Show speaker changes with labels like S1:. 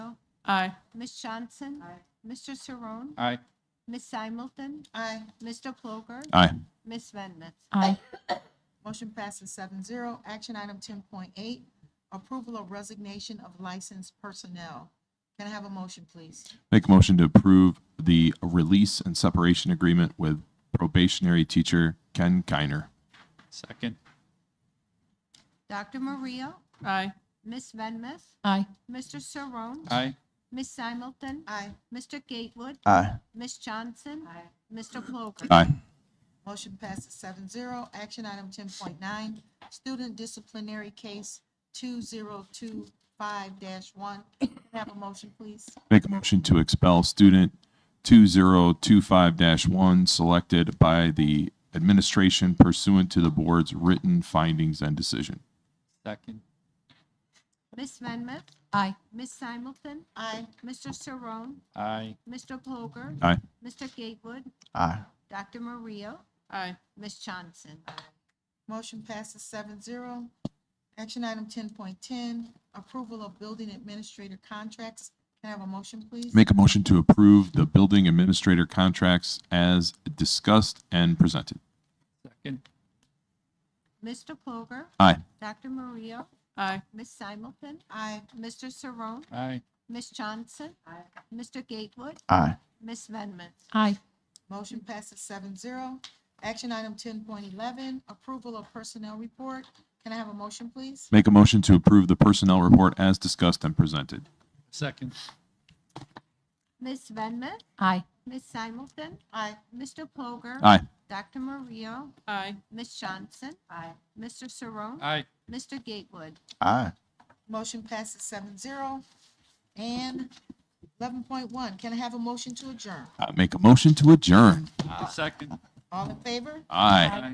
S1: Aye.
S2: Ms. Johnson? Mr. Saron?
S3: Aye.
S2: Ms. Simulton?
S4: Aye.
S2: Mr. Ploger?
S3: Aye.
S2: Ms. Venmus?
S1: Aye.
S4: Motion passes 7-0. Action item ten point eight, approval of resignation of licensed personnel. Can I have a motion, please?
S5: Make a motion to approve the release and separation agreement with probationary teacher Ken Kiner.
S3: Second.
S2: Dr. Maria?
S1: Aye.
S2: Ms. Venmus?
S1: Aye.
S2: Mr. Saron?
S3: Aye.
S2: Ms. Simulton?
S4: Aye.
S2: Mr. Gatewood?
S3: Aye.
S2: Ms. Johnson? Mr. Ploger?
S5: Aye.
S4: Motion passes 7-0. Action item ten point nine, student disciplinary case two zero two five one. Can I have a motion, please?
S5: Make a motion to expel student 2025-1 selected by the administration pursuant to the board's written findings and decision.
S3: Second.
S2: Ms. Venmus?
S1: Aye.
S2: Ms. Simulton?
S4: Aye.
S2: Mr. Saron?
S3: Aye.
S2: Mr. Ploger?
S5: Aye.
S2: Mr. Gatewood?
S3: Aye.
S2: Dr. Maria?
S1: Aye.
S2: Ms. Johnson?
S4: Motion passes 7-0. Action item ten point ten, approval of building administrator contracts. Can I have a motion, please?
S5: Make a motion to approve the building administrator contracts as discussed and presented.
S3: Second.
S2: Mr. Ploger?
S5: Aye.
S2: Dr. Maria?
S1: Aye.
S2: Ms. Simulton?
S4: Aye.
S2: Mr. Saron?
S3: Aye.
S2: Ms. Johnson? Mr. Gatewood?
S3: Aye.
S2: Ms. Venmus?
S1: Aye.
S4: Motion passes 7-0. Action item ten point eleven, approval of personnel report. Can I have a motion, please?
S5: Make a motion to approve the personnel report as discussed and presented.
S3: Second.
S2: Ms. Venmus?
S1: Aye.
S2: Ms. Simulton?
S4: Aye.
S2: Mr. Ploger?
S5: Aye.
S2: Dr. Maria?
S1: Aye.
S2: Ms. Johnson? Aye. Mr. Saron?
S3: Aye.
S2: Mr. Gatewood?
S3: Aye.
S4: Motion passes 7-0. And eleven point one, can I have a motion to adjourn?
S5: Uh, Make a motion to adjourn.
S3: Second.
S4: All in favor?
S5: Aye.